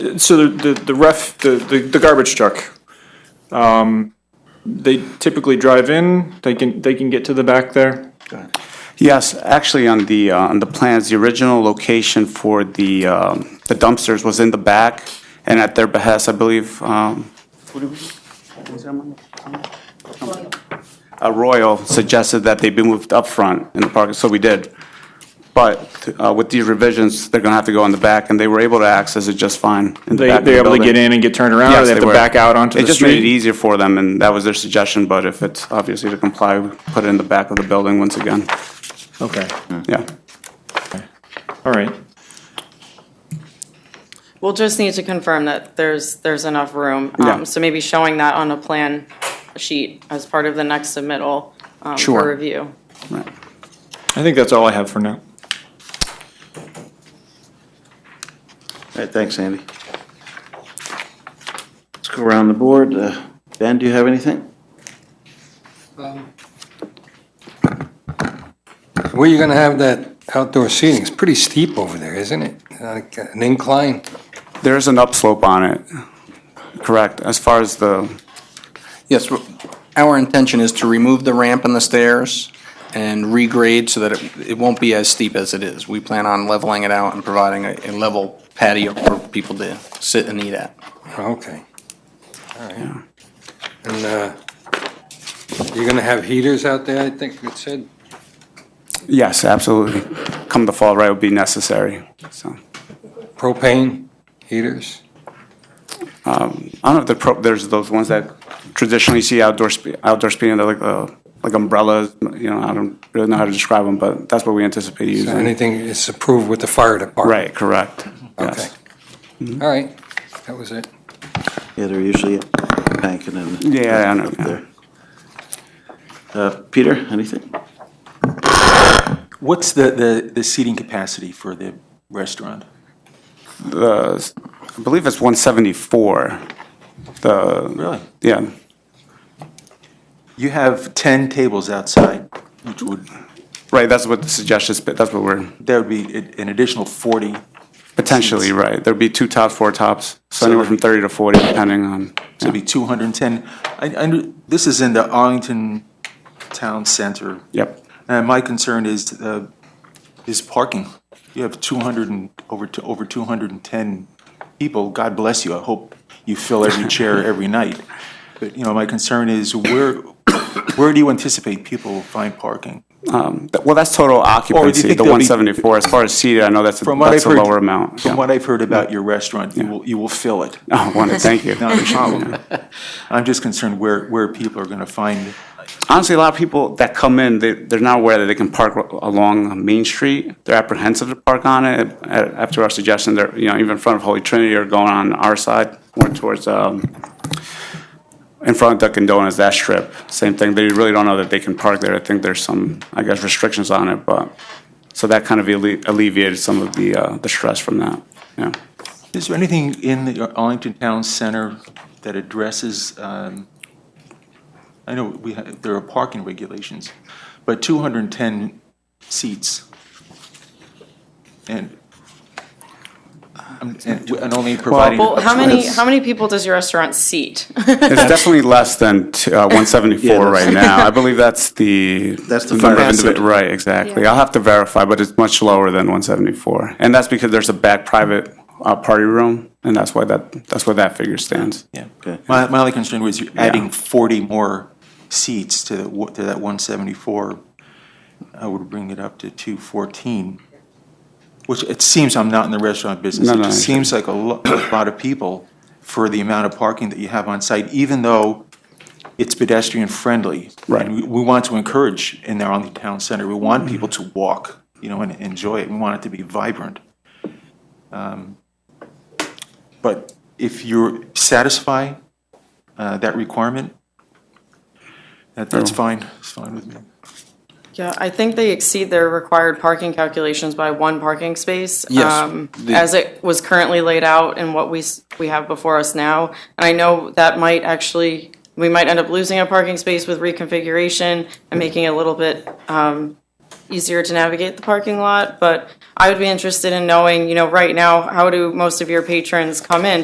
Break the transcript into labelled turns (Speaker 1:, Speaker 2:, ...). Speaker 1: So the, the- the ref, the, the the garbage truck, um, they typically drive in, they can, they can get to the back there?
Speaker 2: Yes, actually, on the, uh, on the plans, the original location for the um, the dumpsters was in the back, and at their behest, I believe, um, uh, Royal suggested that they be moved up front in the park, so we did. But uh, with these revisions, they're going to have to go in the back, and they were able to access it just fine in the
Speaker 1: They,
Speaker 2: back of the
Speaker 1: they're able to
Speaker 2: building.
Speaker 1: get in and get turned around, or
Speaker 2: Yes,
Speaker 1: they have to
Speaker 2: were.
Speaker 1: back out onto
Speaker 2: It
Speaker 1: the
Speaker 2: just made it
Speaker 1: street?
Speaker 2: easier for them, and that was their suggestion, but if it's obviously to comply, we put it in the back of the building once again.
Speaker 1: Okay,
Speaker 2: Yeah.
Speaker 1: all right.
Speaker 3: We'll just need to confirm that there's, there's enough room. Um,
Speaker 2: Yeah.
Speaker 3: So maybe showing that on a plan sheet as part of the next submittal um,
Speaker 2: Sure.
Speaker 3: for review.
Speaker 2: Right.
Speaker 1: I think that's all I have for now.
Speaker 4: All right, thanks, Andy. Let's go around the board. Uh, Ben, do you have anything?
Speaker 5: Where you gonna have that outdoor seating? It's pretty steep over there, isn't it? Like an incline?
Speaker 2: There is an upslope on it, correct, as far as the,
Speaker 6: Yes, w- our intention is to remove the ramp and the stairs and regrade so that it- it won't be as steep as it is. We plan on leveling it out and providing a a level patio for people to sit and eat at.
Speaker 5: Okay. All right. And, uh, you're gonna have heaters out there, I think it said?
Speaker 2: yes, absolutely. Come the fall, right, would be necessary, so.
Speaker 5: Propane heaters?
Speaker 2: I don't know if the pro, there's those ones that traditionally you see outdoor, spe- outdoor speeding, they're like, uh, like umbrellas, you know, I don't really know how to describe them, but that's what we anticipate
Speaker 5: So
Speaker 2: using.
Speaker 5: Anything is approved with the fire department?
Speaker 2: Right, correct, yes.
Speaker 5: All right, that was it.
Speaker 4: Yeah, they're usually banking in.
Speaker 2: Yeah, I know,
Speaker 4: up
Speaker 2: yeah.
Speaker 4: there. Uh, Peter, anything?
Speaker 7: What's the, the, the seating capacity for the restaurant?
Speaker 2: The, I believe it's one seventy-four, the,
Speaker 7: Really?
Speaker 2: yeah,
Speaker 7: You have ten tables outside, which would,
Speaker 2: right, that's what the suggestion, is, but that's what we're,
Speaker 7: that would be a- an additional forty.
Speaker 2: potentially, right, there'd be two tops, four tops, so
Speaker 7: So
Speaker 2: anywhere
Speaker 7: that'd
Speaker 2: from
Speaker 7: be-
Speaker 2: thirty to forty, depending on.
Speaker 7: So it'd be two hundred and ten. I, I, knew- this is in the Arlington Town Center.
Speaker 2: Yep.
Speaker 7: And my concern is, uh, is parking. You have two hundred and, over, t- over two hundred and ten people. God bless you. I hope you fill every chair every night. But, you know, my concern is where, where do you anticipate people will find parking?
Speaker 2: Th- Well, that's total occupancy,
Speaker 7: think
Speaker 2: the
Speaker 7: there'll be-
Speaker 2: 174. As far as seated, I know that's, a-
Speaker 7: From what
Speaker 2: that's a
Speaker 7: I've heard-
Speaker 2: lower amount.
Speaker 7: From
Speaker 2: Yeah.
Speaker 7: what I've heard about your restaurant, you will, you will fill it.
Speaker 2: Oh, wonderful, thank you.
Speaker 7: Not a problem. I'm just concerned where, where people are gonna find,
Speaker 2: Honestly, a lot of people that come in, they, they're not aware that they can park ro- along Main Street. They're apprehensive to park on it. A- After our suggestion, they're, you know, even in front of Holy Trinity or going on our side, more towards, um, in front of Dunkin' Donuts, that strip, same thing. They really don't know that they can park there. I think there's some, I guess, restrictions on it, but, so that kind of alle- alleviated some of the, uh, the stress from that, yeah.
Speaker 7: is there anything in the Arlington Town Center that addresses, um, I know we, ha- there are parking regulations, but two hundred and ten seats. And, um, and and only providing.
Speaker 3: Well, how many,
Speaker 7: That's-
Speaker 3: how many people does your restaurant seat?
Speaker 2: It's definitely less than t- uh, 174
Speaker 4: that's-
Speaker 2: right now. I believe that's the.
Speaker 4: That's the
Speaker 2: number of
Speaker 4: capacity.
Speaker 2: individ- Right, exactly. I'll have to verify, but it's much lower than 174. And that's because there's a back private uh, party room, and that's why that, that's where that figure stands.
Speaker 7: Yeah.
Speaker 4: Okay.
Speaker 7: My, my only concern was you're adding 40 more seats to, the wa- to that 174. I would bring it up to 214, which it seems, I'm not in the restaurant business.
Speaker 2: No,
Speaker 7: It
Speaker 2: no,
Speaker 7: just
Speaker 2: I-
Speaker 7: seems like a lo- a lot of people for the amount of parking that you have on site, even though it's pedestrian friendly.
Speaker 2: Right.
Speaker 7: And we, we want to encourage in the Arlington Town Center, we want people to walk, you know, and enjoy it. We want it to be vibrant. Um, But if you satisfy uh, that requirement, that, that's fine, it's fine with me.
Speaker 3: Yeah, I think they exceed their required parking calculations by one parking space.
Speaker 6: Yes,
Speaker 3: um,
Speaker 6: the-
Speaker 3: As it was currently laid out and what we, s- we have before us now. And I know that might actually, we might end up losing a parking space with reconfiguration and making it a little bit um, easier to navigate the parking lot, but I would be interested in knowing, you know, right now, how do most of your patrons come in?